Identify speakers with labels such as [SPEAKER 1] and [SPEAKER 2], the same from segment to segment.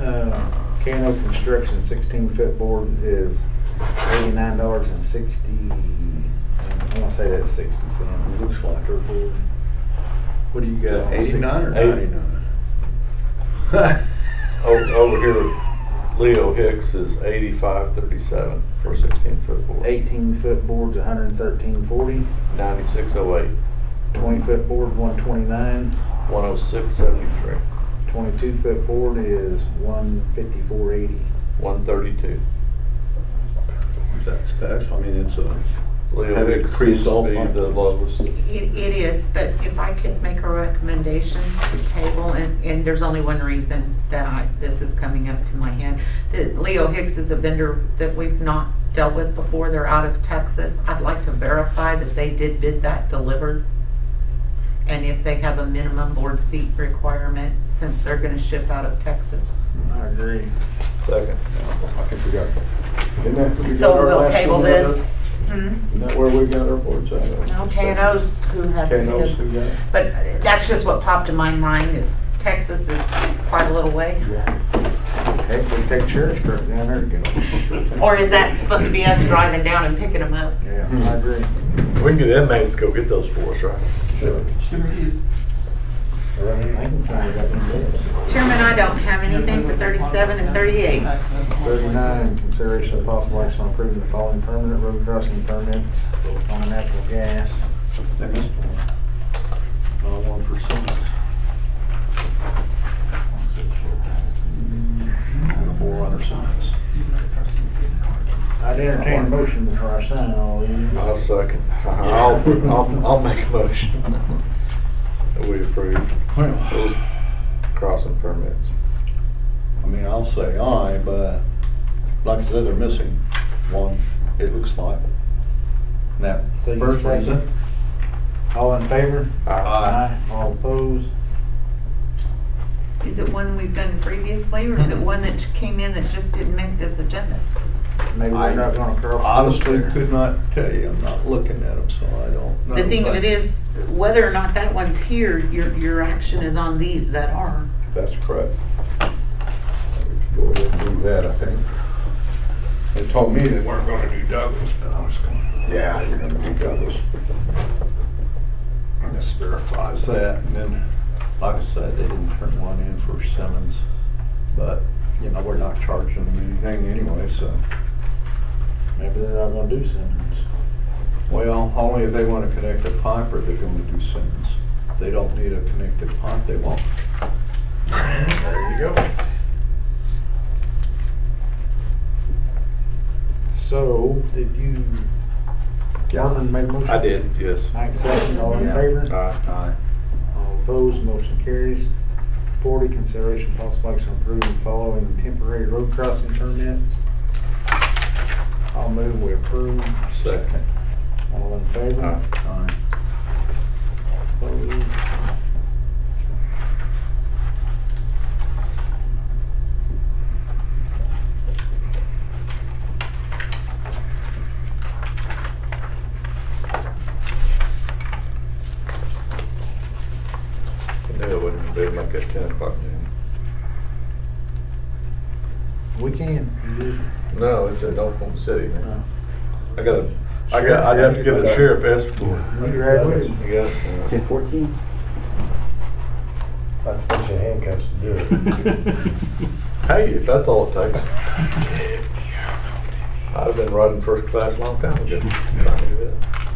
[SPEAKER 1] Uh, construction sixteen foot board is eighty-nine dollars and sixty, I wanna say that's sixty cents.
[SPEAKER 2] Looks like her board.
[SPEAKER 1] What do you got? on
[SPEAKER 2] Eighty-nine or
[SPEAKER 1] 69?
[SPEAKER 2] ninety-nine? Over, over here, Leo Hicks is eighty-five thirty-seven for sixteen foot board.
[SPEAKER 1] Eighteen foot board's a hundred and thirteen forty,
[SPEAKER 2] Ninety-six oh eight,
[SPEAKER 1] twenty foot board one twenty-nine,
[SPEAKER 2] one oh six seventy-three,
[SPEAKER 1] twenty-two foot board is one fifty-four eighty.
[SPEAKER 2] one thirty-two.
[SPEAKER 3] That's tax, I mean, it's a,
[SPEAKER 2] Leo
[SPEAKER 3] Have it
[SPEAKER 2] Hicks seems
[SPEAKER 3] increased
[SPEAKER 2] to
[SPEAKER 3] all
[SPEAKER 2] be
[SPEAKER 3] month.
[SPEAKER 2] the lowest.
[SPEAKER 4] It, it is, but if I could make a recommendation to table, and, and there's only one reason that I, this is coming up to my head. That Leo Hicks is a vendor that we've not dealt with before, they're out of Texas. I'd like to verify that they did bid that delivered. And if they have a minimum board feet requirement, since they're gonna ship out of Texas.
[SPEAKER 1] I agree.
[SPEAKER 2] Second.
[SPEAKER 3] I think we got. Isn't that where we got
[SPEAKER 4] So
[SPEAKER 3] our
[SPEAKER 4] we'll
[SPEAKER 3] last
[SPEAKER 4] table
[SPEAKER 3] one at?
[SPEAKER 4] this. Hmm?
[SPEAKER 3] Isn't that where we got our boards at?
[SPEAKER 4] No, K and O's who had.
[SPEAKER 3] K and O's, we got.
[SPEAKER 4] But that's just what popped in my mind is Texas is quite a little way.
[SPEAKER 1] Heck, we take sheriff's truck down there and go.
[SPEAKER 4] Or is that supposed to be us driving down and picking them up?
[SPEAKER 1] Yeah, I agree.
[SPEAKER 2] We can get inmates go get those for us, right?
[SPEAKER 1] Sure. Right, I can find out in minutes.
[SPEAKER 4] Chairman, I don't have anything for 37 and 38.
[SPEAKER 1] Thirty-nine, consideration of possible action on approving the following permanent road crossing permits on natural gas.
[SPEAKER 3] They missed one. Uh, one for Simmons. And the forerunner signs.
[SPEAKER 1] I'd entertain a motion before I sign all these.
[SPEAKER 2] I'll second. I'll, I'll, I'll make a motion. That We approve those
[SPEAKER 3] Well,
[SPEAKER 2] crossing permits.
[SPEAKER 3] I mean, I'll say aye, but like I said, they're missing one, it looks like. Now,
[SPEAKER 1] So you
[SPEAKER 3] first
[SPEAKER 1] say-
[SPEAKER 3] reason,
[SPEAKER 1] All in favor?
[SPEAKER 3] Aye.
[SPEAKER 1] All opposed?
[SPEAKER 4] Is it one we've done previously or is it one that came in that just didn't make this agenda?
[SPEAKER 1] Maybe we're not gonna cross.
[SPEAKER 3] honestly could not tell you, I'm not looking at them, so I don't know.
[SPEAKER 4] The thing of
[SPEAKER 3] but
[SPEAKER 4] it is, whether or not that one's here, your, your action is on these that are.
[SPEAKER 3] That's correct. Go ahead and do that, I think. They told me they weren't gonna do Douglas, but I was gonna. Yeah, you're gonna do Douglas. And This verifies that, and then, like I said, they didn't turn one in for Simmons, but, you know, we're not charging them anything anyway, so.
[SPEAKER 1] Maybe they're not gonna do Simmons.
[SPEAKER 3] Well, only if they want to connect a pipe are they going to do Simmons. They don't need a connected pipe, they won't.
[SPEAKER 1] There you go. So, did you, Calvin made a motion?
[SPEAKER 2] I did, yes.
[SPEAKER 1] Mike second, all in favor?
[SPEAKER 3] Aye.
[SPEAKER 1] All opposed, motion carries. Forty, consideration possible action on approving the following temporary road crossing permits. I'll move, we approve.
[SPEAKER 3] Second.
[SPEAKER 1] All in favor?
[SPEAKER 2] Aye.
[SPEAKER 3] Aye.
[SPEAKER 1] Opposed?
[SPEAKER 2] I knew it wouldn't be like at ten o'clock noon.
[SPEAKER 1] We can.
[SPEAKER 2] No, it's at Oklahoma City, man.
[SPEAKER 1] No.
[SPEAKER 2] I gotta, I got, I'd have to get a sheriff escort.
[SPEAKER 1] We graduated.
[SPEAKER 2] You got it?
[SPEAKER 5] Ten fourteen?
[SPEAKER 6] I'd put your handcuffs to do it.
[SPEAKER 2] Hey, if that's all it takes. I'd have been riding first class a long time ago. I knew that.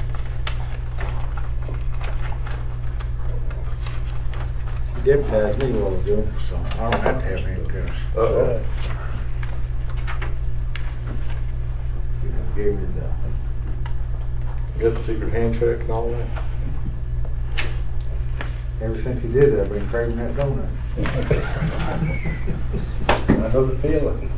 [SPEAKER 1] Deputized me a while ago, so I don't have to have handcuffs.
[SPEAKER 2] Uh-oh.
[SPEAKER 1] You know, Gave me the,
[SPEAKER 2] You got the secret hand check and all that?
[SPEAKER 1] ever since he did that, I've been craving that donut.
[SPEAKER 3] I know the feeling.